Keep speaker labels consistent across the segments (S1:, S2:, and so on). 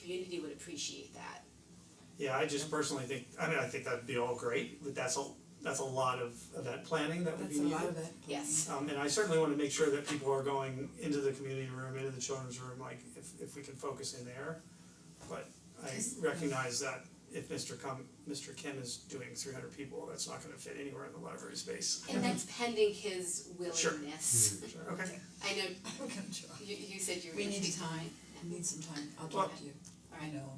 S1: community would appreciate that.
S2: Yeah, I just personally think, I mean, I think that'd be all great, but that's a, that's a lot of event planning that would be
S3: That's a
S2: needed.
S3: lot of it.
S1: Yes,
S2: Um and I certainly wanna make sure that people are going into the community room, into the children's room, like if if we can focus in there. But I recognize that if Mr. Kim, Mr. Kim is doing three hundred people, that's not gonna fit anywhere in the library space.
S3: Mm-hmm.
S1: and that's pending his
S2: Sure.
S1: willingness.
S2: Sure, okay,
S1: I know
S3: I'm gonna try.
S1: you you said you were
S3: We need
S1: interested.
S3: time, I need some time, I'll talk to you, I know.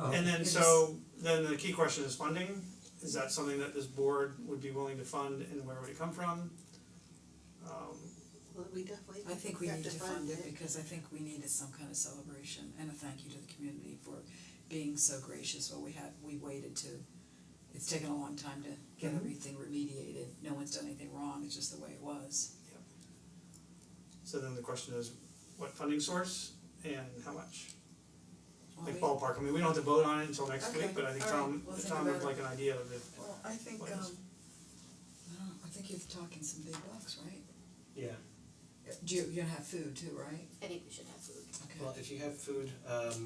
S3: Oh,
S4: Oh.
S2: and then
S3: Yes.
S2: so then the key question is funding, is that something that this board would be willing to fund and where would it come from? Um
S5: Well, we definitely
S3: I think we
S5: have
S3: need to fund it
S5: it.
S3: because I think we needed some kind of celebration and a thank you to the community for being so gracious while we had, we waited to. It's taken a long time to get
S2: Mhm.
S3: everything remediated, no one's done anything wrong, it's just the way it was.
S2: so then the question is, what funding source and how much?
S3: Well,
S2: Like
S3: we-
S2: ballpark, I mean, we don't have to vote on it until next
S3: Okay,
S2: week, but I think
S3: all right,
S2: Tom,
S3: we'll think
S2: Tom would
S3: about it.
S2: like an idea of it.
S3: Well, I think
S2: What
S3: um,
S2: else?
S3: I don't know, I think you're talking some big bucks, right?
S4: Yeah,
S3: Do you, you're gonna have food too, right?
S1: I think we should have food.
S3: Okay.
S4: well, if you have food, um,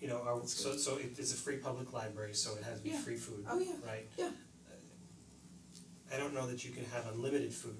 S4: you know, our,
S3: That's
S4: so
S3: good.
S4: so it is a free public library, so it has to be
S3: Yeah.
S4: free food, right? Uh,
S3: Oh, yeah. Yeah.
S4: I don't know that you can have unlimited food,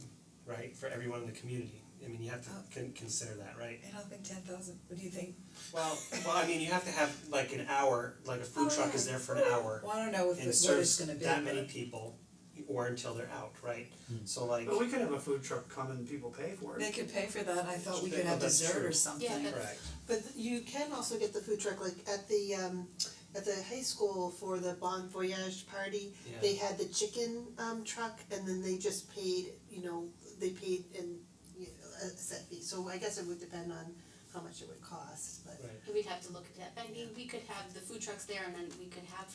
S4: right, for everyone in the community, I mean, you have to
S3: Oh.
S4: con- consider that, right?
S3: I don't think ten thousand, what do you think?
S4: Well, well, I mean, you have to have like an hour, like a food
S3: Oh,
S4: truck
S3: yeah.
S4: is there for an hour
S3: Well, I don't know if it,
S4: and
S3: what it's
S4: serves
S3: gonna be,
S4: that many
S3: but-
S4: people or until they're out, right? So like,
S2: But we could have a food truck come and people pay for
S3: They
S2: it.
S3: could pay for that, I thought we
S4: They-
S3: could
S4: well,
S3: have
S4: Oh, that's
S3: dessert
S4: true.
S3: or something.
S1: Yeah, that's-
S4: correct,
S5: But you can also get the food truck, like at the um at the high school for the Bon Voyage party,
S4: Yeah.
S5: they had the chicken um truck and then they just paid, you know, they paid in you know, a set fee, so I guess it would depend on how much it would cost, but
S4: right,
S1: And we'd have to look at that, I mean, we could have the food trucks there and then we could have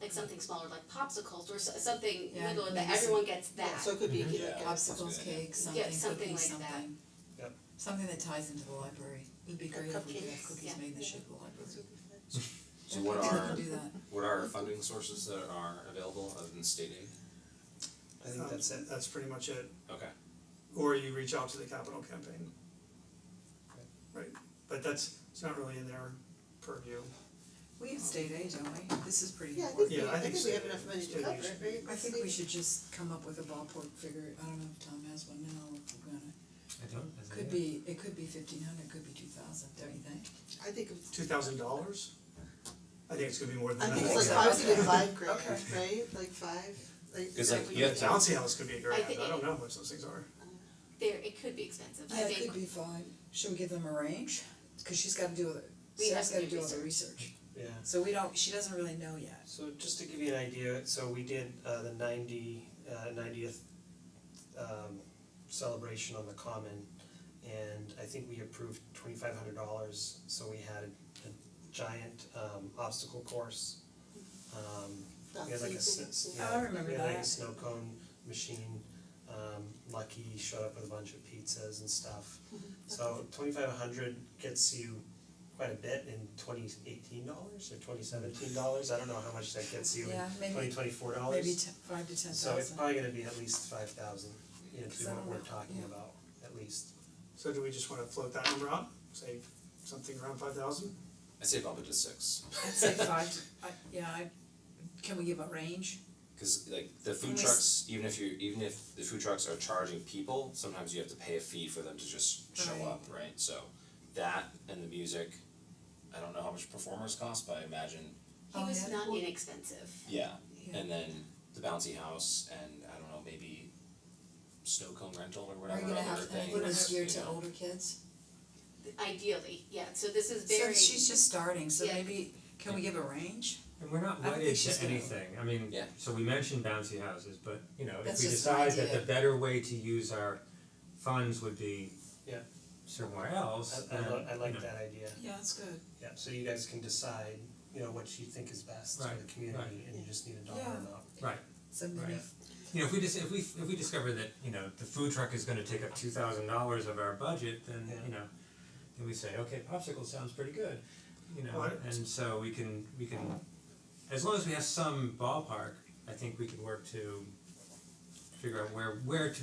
S1: like something smaller, like popsicles or so- something
S3: Yeah,
S1: little that
S3: maybe some-
S1: everyone gets that.
S5: yeah, so it could be
S3: Mm-hmm.
S5: like a-
S3: Popsicles, cakes, something,
S1: Yeah, something
S3: cookies,
S1: like that.
S3: something.
S4: Yep.
S3: Something that ties into the library, it'd be great if we could have
S5: cupcakes.
S3: cookies
S1: Yeah.
S3: made in the
S5: Yeah.
S3: shape of the library.
S6: So what
S3: I think we
S6: are,
S3: can do that,
S6: what are funding sources that are available other than state aid?
S4: I think
S2: Um,
S4: that's it,
S2: That's pretty much it,
S6: Okay,
S2: or you reach out to the capital campaign. Right, but that's, it's not really in their purview.
S3: we have state aid, don't we? This is pretty
S5: Yeah, I
S3: important.
S5: think we,
S2: Yeah, I
S5: I
S2: think
S5: think
S2: so.
S5: we have enough money to
S2: Yeah,
S5: cover
S2: we
S5: it,
S2: should-
S5: right?
S3: I think we should just come up with a ballpark figure, I don't know if Tom has one now, if we're gonna,
S7: I don't, as
S3: could be, it could be fifteen hundred, could be two thousand, don't you think?
S5: I think it's
S2: Two thousand dollars? I think it's gonna be more
S5: I
S2: than
S5: think it's
S2: that.
S5: like I was thinking five grand, right, like five, like.
S6: 'Cause, like,
S5: that we
S6: you have
S5: would-
S6: to
S2: I don't see how this could be a grand, I
S1: think-
S2: don't know how much those things are.
S1: There, it could be expensive, I
S3: Yeah, it could
S1: think,
S3: be five, should we give them a range? Cause she's gotta do, other-
S1: We have
S3: Sarah's
S1: to
S3: gotta
S1: do
S3: do all the research,
S4: yeah.
S3: so we don't, she doesn't really know yet.
S4: So just to give you an idea, so we did uh the ninety uh ninetieth um celebration on the common and I think we approved twenty five hundred dollars, so we had a giant um obstacle course. Um we had like a
S5: That's-
S4: s-
S5: yeah.
S4: yeah,
S3: Oh, I remember
S4: we had like a
S3: that.
S4: snow cone machine, um Lucky showed up with a bunch of pizzas and stuff. So twenty five hundred gets you quite a bit in twenty eighteen dollars or twenty seventeen dollars, I don't know how much that gets you
S3: Yeah,
S4: in
S3: maybe-
S4: twenty twenty four dollars.
S3: Maybe ten, five to ten
S4: So it's
S3: thousand.
S4: probably gonna be at least five thousand, you know, to
S3: Because
S4: be
S3: I
S4: what
S3: don't
S4: we're
S3: know,
S4: talking
S3: yeah.
S4: about, at least.
S2: So do we just wanna float that number out, say something around five thousand?
S6: I say bump it to six,
S3: I'd say five, to- I, yeah, I, can we give a range?
S6: cause like the food
S3: Unless-
S6: trucks, even if you, even if the food trucks are charging people, sometimes you have to pay a fee for them to just show
S3: Right.
S6: up, right? So that and the music, I don't know how much performers cost, but I imagine,
S1: he
S3: Oh,
S1: was
S3: yeah.
S1: not inexpensive.
S6: yeah,
S3: Yeah.
S6: and then the bouncy house and I don't know, maybe snow cone rental or
S3: Are
S6: whatever
S3: you gonna
S6: other
S3: have
S6: things,
S3: anyone geared
S6: you
S3: to
S6: know.
S3: older kids?
S1: Ideally, yeah, so this is very,
S3: So she's just starting, so
S1: Yeah.
S3: maybe, can we give a range?
S7: And we're not
S3: I don't
S7: wedded
S3: think she's
S7: to
S3: gonna-
S7: anything, I mean,
S6: Yeah.
S7: so we mentioned bouncy houses, but you know, if
S3: That's
S7: we
S3: just an
S7: decide that the
S3: idea.
S7: better way to use our funds would be
S4: Yeah.
S7: somewhere else,
S4: I I
S7: then,
S4: lo- I
S7: you
S4: like
S7: know,
S4: that idea,
S3: Yeah, that's good.
S4: yeah, so you guys can decide, you know, what you think is best for
S7: Right,
S4: the community and you just need a dollar
S3: Yeah.
S4: amount.
S3: So maybe,
S7: Right. You know, if we just, if we, if we discover that, you know, the food truck is gonna take up two thousand dollars of our budget, then,
S4: Yeah.
S7: you know, then we say, okay, popsicle sounds pretty good, you know,
S2: Right.
S7: and so we can, we can, as long as we have some ballpark, I think we can work to figure out where, where to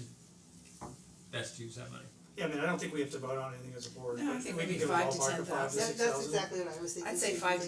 S7: best use that money.
S2: Yeah, I mean, I don't think we have to vote on anything as a board,
S3: No, I
S2: but
S3: think
S2: we
S3: maybe
S2: can give a
S3: five to
S2: ballpark of five to
S3: 10,000.
S2: six
S5: That
S2: thousand.
S5: that's exactly what I was thinking.
S3: I'd say
S5: too,
S3: five to
S5: like-